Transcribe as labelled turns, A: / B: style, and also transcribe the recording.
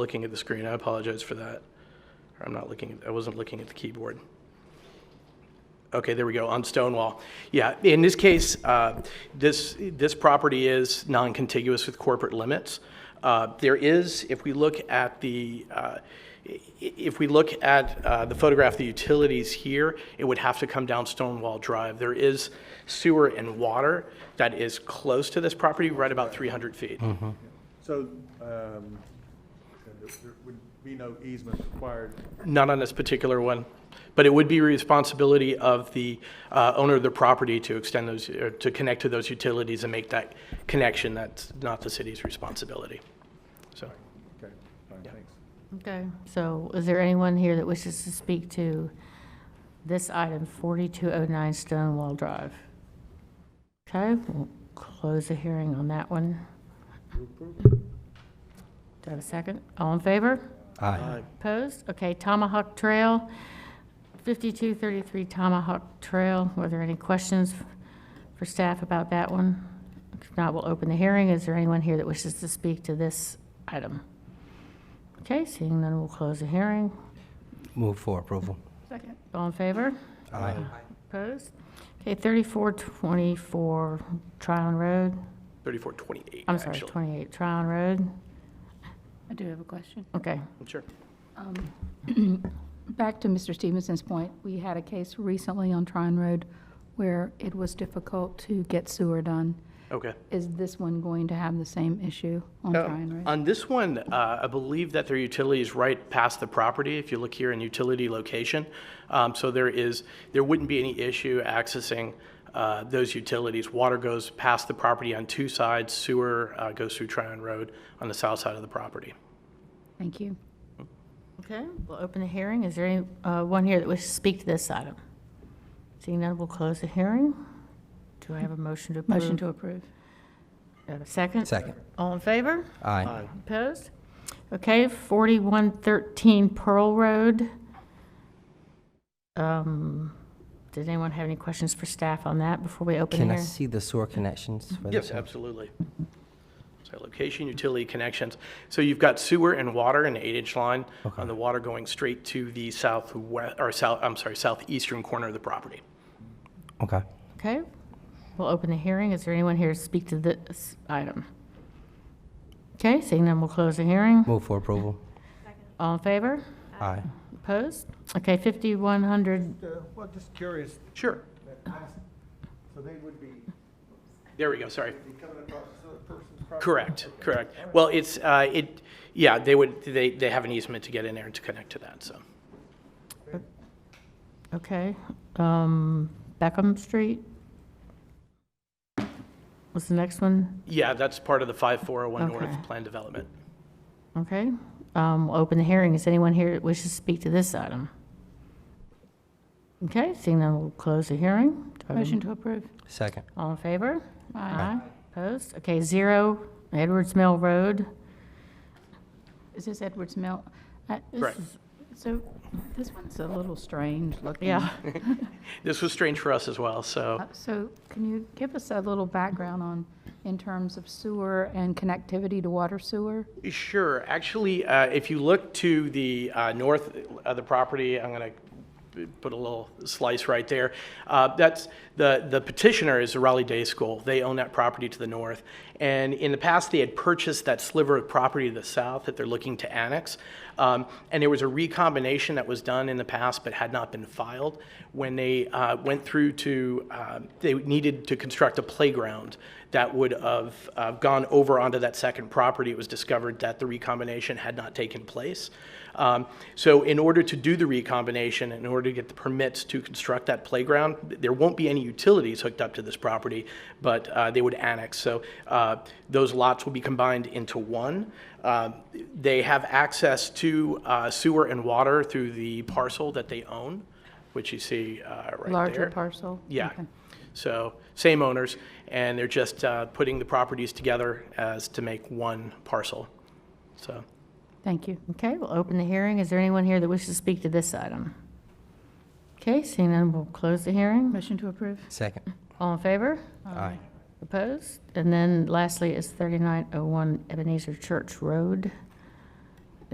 A: looking at the screen. I apologize for that. Or I'm not looking, I wasn't looking at the keyboard. Okay, there we go, on Stonewall. Yeah, in this case, uh, this, this property is non-contiguous with corporate limits. Uh, There is, if we look at the, uh, i- if we look at uh, the photograph of the utilities here, it would have to come down Stonewall Drive. There is sewer and water that is close to this property, right about 300 feet.
B: So, um, there there would be no easement required.
A: Not on this particular one, but it would be responsibility of the uh, owner of the property to extend those, or to connect to those utilities and make that connection. That's not the city's responsibility. So,
B: Okay, fine, thanks.
C: Okay, so is there anyone here that wishes to speak to this item, 4209 Stonewall Drive? Okay, we'll close the hearing on that one. Do I have a second? All in favor?
D: Aye.
C: Opposed? Okay, Tomahawk Trail, 5233 Tomahawk Trail. Were there any questions for staff about that one? If not, we'll open the hearing. Is there anyone here that wishes to speak to this item? Okay, seeing none, we'll close the hearing.
D: Move for approval.
E: Second.
C: All in favor?
D: Aye.
C: Opposed? Okay, 3424 Tryon Road,
A: 3428,
C: I'm sorry,
A: actually.
C: 28 Tryon Road.
E: I do have a question.
C: Okay,
A: Sure.
E: Back to Mr. Stevenson's point, we had a case recently on Tryon Road where it was difficult to get sewer done.
A: Okay.
E: Is this one going to have the same issue on Tryon Road?
A: Uh, On this one, Oh. uh, I believe that their utility is right past the property, if you look here in utility location. Um, So there is, there wouldn't be any issue accessing uh, those utilities. Water goes past the property on two sides, sewer uh, goes through Tryon Road on the south side of the property.
E: Thank you.
C: okay, we'll open the hearing. Is there any, uh, one here that wishes to speak to this item? Seeing none, we'll close the hearing. Do I have a motion to approve?
E: Motion to approve.
C: Do I have a second?
D: Second.
C: All in favor?
D: Aye.
C: Opposed? Okay, 4113 Pearl Road. Um, Did anyone have any questions for staff on that before we open
D: Can I
C: here?
D: see the sewer connections for this?
A: Yes, absolutely. So location, utility connections. So you've got sewer and water, an eight-inch line, on the water going straight to the southwest, or south, I'm sorry, southeastern corner of the property.
D: Okay.
C: Okay, we'll open the hearing. Is there anyone here to speak to this item? Okay, seeing none, we'll close the hearing.
D: Move for approval.
C: All in favor?
D: Aye.
C: Opposed? Okay, 5100,
B: Well, just curious,
A: Sure.
B: so they would be
A: There we go, sorry.
B: coming across this person's
A: Correct, correct. Well, it's, uh, it, yeah, they would, they, they have an easement to get in there and to connect to that, so.
C: okay, um, Beckham Street? What's the next one?
A: Yeah, that's part of the 5401
C: Okay.
A: North Plan Development.
C: Okay, um, we'll open the hearing. Is anyone here that wishes to speak to this item? Okay, seeing none, we'll close the hearing. Do I have a-
E: Motion to approve.
D: Second.
C: All in favor?
E: Aye.
C: Opposed? Okay, zero, Edwards Mill Road.
E: Is this Edwards Mill? I- this
A: Correct.
E: is- So this one's a little strange looking.
C: Yeah,
A: This was strange for us as well, so.
E: Uh, So can you give us a little background on, in terms of sewer and connectivity to water sewer?
A: Sure, actually, uh, if you look to the uh, north of the property, I'm going to put a little slice right there. Uh, That's, the the petitioner is the Raleigh Day School. They own that property to the north. And in the past, they had purchased that sliver of property to the south that they're looking to annex. Um, And there was a recombination that was done in the past but had not been filed. When they uh, went through to, uh, they needed to construct a playground that would have uh, gone over onto that second property, it was discovered that the recombination had not taken place. Um, So in order to do the recombination, in order to get the permits to construct that playground, there won't be any utilities hooked up to this property, but uh, they would annex. So uh, those lots will be combined into one. Uh, They have access to uh, sewer and water through the parcel that they own, which you see uh, right there.
E: Larger parcel?
A: Yeah.
E: Okay.
A: So same owners, and they're just uh, putting the properties together as to make one parcel. So,
E: Thank you.
C: okay, we'll open the hearing. Is there anyone here that wishes to speak to this item? Okay, seeing none, we'll close the hearing.
E: Motion to approve?
D: Second.
C: All in favor?
D: Aye.
C: Opposed? And then lastly is 3901 Ebenezer oh Church Road.